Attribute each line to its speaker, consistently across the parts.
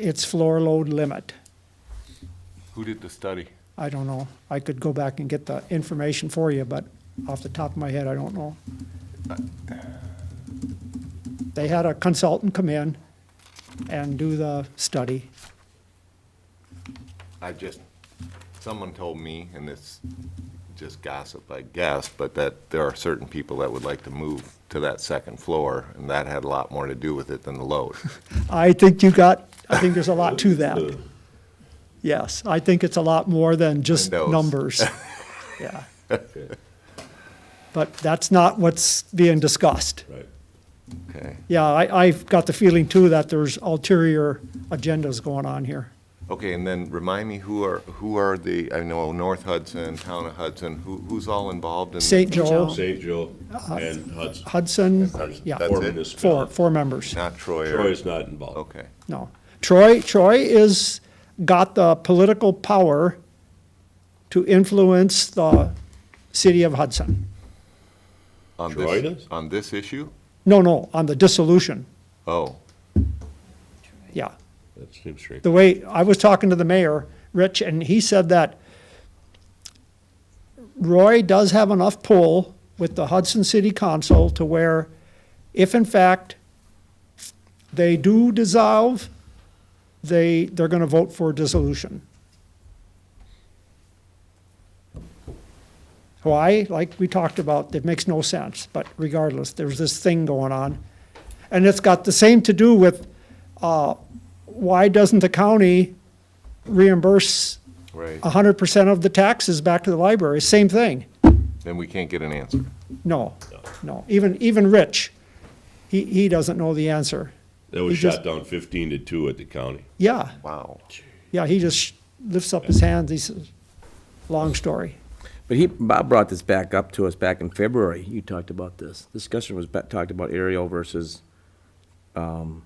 Speaker 1: its floor load limit.
Speaker 2: Who did the study?
Speaker 1: I don't know. I could go back and get the information for you, but off the top of my head, I don't know. They had a consultant come in and do the study.
Speaker 2: I just, someone told me, and it's just gossip, I guess, but that there are certain people that would like to move to that second floor, and that had a lot more to do with it than the load.
Speaker 1: I think you got, I think there's a lot to that. Yes, I think it's a lot more than just
Speaker 2: Windows.
Speaker 1: numbers. Yeah. But that's not what's being discussed.
Speaker 3: Right.
Speaker 2: Okay,
Speaker 1: Yeah, I, I've got the feeling too that there's ulterior agendas going on here.
Speaker 2: okay, and then remind me, who are, who are the, I know North Hudson, Town of Hudson, who, who's all involved in? the-
Speaker 1: St. Joe,
Speaker 3: St. Joe and Hudson.
Speaker 1: Hudson,
Speaker 3: Hudson.
Speaker 1: Uh-huh. yeah,
Speaker 2: That's
Speaker 3: Four
Speaker 2: it?
Speaker 1: four,
Speaker 3: municipalities.
Speaker 1: four members,
Speaker 2: Not Troy or?
Speaker 3: Troy is not involved.
Speaker 2: Okay,
Speaker 1: no. Troy, Troy is, got the political power to influence the city of Hudson.
Speaker 2: on
Speaker 3: Troy
Speaker 2: this,
Speaker 3: does?
Speaker 2: on this issue?
Speaker 1: No, no, on the dissolution,
Speaker 2: Oh,
Speaker 1: yeah.
Speaker 3: That seems strange.
Speaker 1: the way, I was talking to the mayor, Rich, and he said that Roy does have enough pull with the Hudson City Council to where if in fact they do dissolve, they, they're gonna vote for dissolution. Why? Like we talked about, it makes no sense, but regardless, there's this thing going on. And it's got the same to do with why doesn't the county reimburse
Speaker 2: right,
Speaker 1: hundred percent of the taxes back to the library? Same thing.
Speaker 2: then we can't get an answer.
Speaker 1: No, no. Even, even Rich, he, he doesn't know the answer.
Speaker 3: That was
Speaker 1: He just-
Speaker 3: shot down fifteen to two at the county.
Speaker 1: Yeah,
Speaker 2: Wow.
Speaker 1: yeah, he just lifts up his hands. He says, long story.
Speaker 4: But he, Bob brought this back up to us back in February. You talked about this. Discussion was ba- talked about aerial versus, um,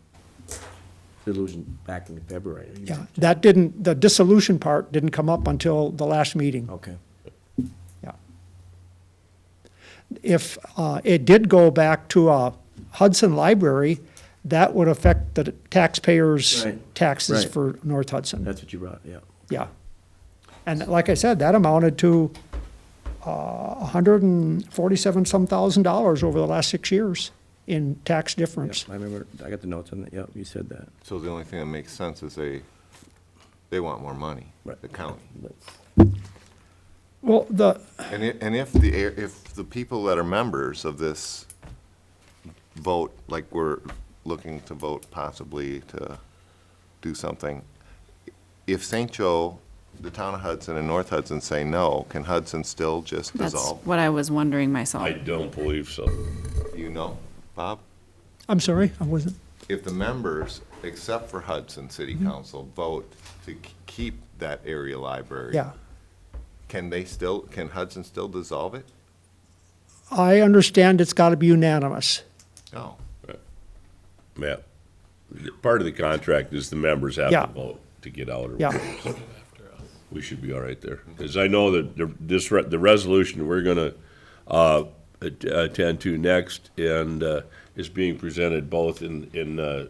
Speaker 4: delusion back in February.
Speaker 1: Yeah, that didn't, the dissolution part didn't come up until the last meeting.
Speaker 4: Okay.
Speaker 1: Yeah. If uh, it did go back to uh, Hudson Library, that would affect the taxpayers'
Speaker 4: Right,
Speaker 1: taxes
Speaker 4: right.
Speaker 1: for North Hudson,
Speaker 4: That's what you brought, yeah.
Speaker 1: yeah. And like I said, that amounted to uh, a hundred and forty-seven some thousand dollars over the last six years in tax
Speaker 4: Yep,
Speaker 1: difference.
Speaker 4: I remember, I got the notes on that, yep, you said that.
Speaker 2: So the only thing that makes sense is they, they want more money,
Speaker 4: Right.
Speaker 2: the county.
Speaker 4: That's-
Speaker 1: Well, the,
Speaker 2: And i and if the, air- if the people that are members of this vote, like we're looking to vote possibly to do something, if St. Joe, the town of Hudson and North Hudson say no, can Hudson still just
Speaker 5: That's
Speaker 2: dissolve?
Speaker 5: what I was wondering myself.
Speaker 3: I don't believe so.
Speaker 2: You know, Bob,
Speaker 1: I'm sorry, I wasn't,
Speaker 2: if the members, except for Hudson City Council, vote to k- keep that area library,
Speaker 1: yeah.
Speaker 2: can they still, can Hudson still dissolve it?
Speaker 1: I understand it's gotta be unanimous.
Speaker 2: No.
Speaker 3: Matt, part of the contract is the members have
Speaker 1: Yeah.
Speaker 3: to vote to get out or
Speaker 1: Yeah.
Speaker 3: whatever. We should be all right there. Because I know that the- this, re- the resolution we're going to attend to next and uh, is being presented both in, in, uh,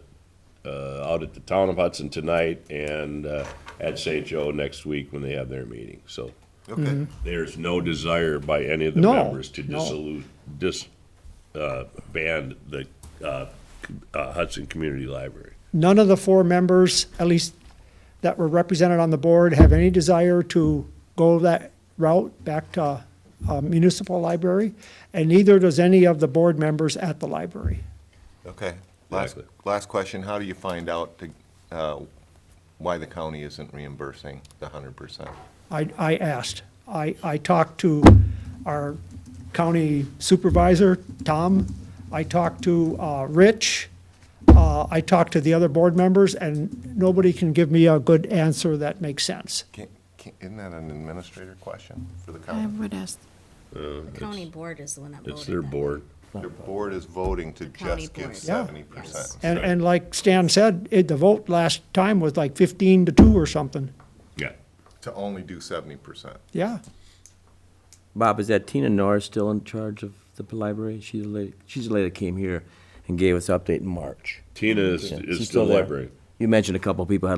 Speaker 3: uh, out at the town of Hudson tonight and uh, at St. Joe next week when they have their meeting. So
Speaker 2: Okay.
Speaker 3: there's no desire by any of the
Speaker 1: No,
Speaker 3: members to
Speaker 1: no.
Speaker 3: dissolute, dis, uh, ban the, uh, c- uh, Hudson Community Library.
Speaker 1: None of the four members, at least that were represented on the board, have any desire to go that route back to uh, municipal library, and neither does any of the board members at the library.
Speaker 2: Okay, last,
Speaker 3: Exactly.
Speaker 2: last question, how do you find out to, uh, why the county isn't reimbursing the hundred percent?
Speaker 1: I, I asked. I, I talked to our county supervisor, Tom. I talked to uh, Rich. Uh, I talked to the other board members, and nobody can give me a good answer that makes sense.
Speaker 2: Isn't that an administrator question for the
Speaker 5: I
Speaker 2: county?
Speaker 5: would ask,
Speaker 6: The county board is the one that voted.
Speaker 3: It's their
Speaker 6: that.
Speaker 3: board.
Speaker 2: Your board is voting to
Speaker 6: The county
Speaker 2: just give
Speaker 6: board.
Speaker 1: Yeah.
Speaker 2: seventy percent.
Speaker 1: And, and like Stan said, it, the vote last time was like fifteen to two or something.
Speaker 3: Yeah.
Speaker 2: To only do seventy percent.
Speaker 1: Yeah.
Speaker 4: Bob, is that Tina Norris still in charge of the library? She's the lady, she's the lady that came here and gave us update in March.
Speaker 3: Tina is,
Speaker 4: Yeah,
Speaker 3: is
Speaker 4: she's
Speaker 3: still
Speaker 4: there.
Speaker 3: library.
Speaker 4: You mentioned a couple of people had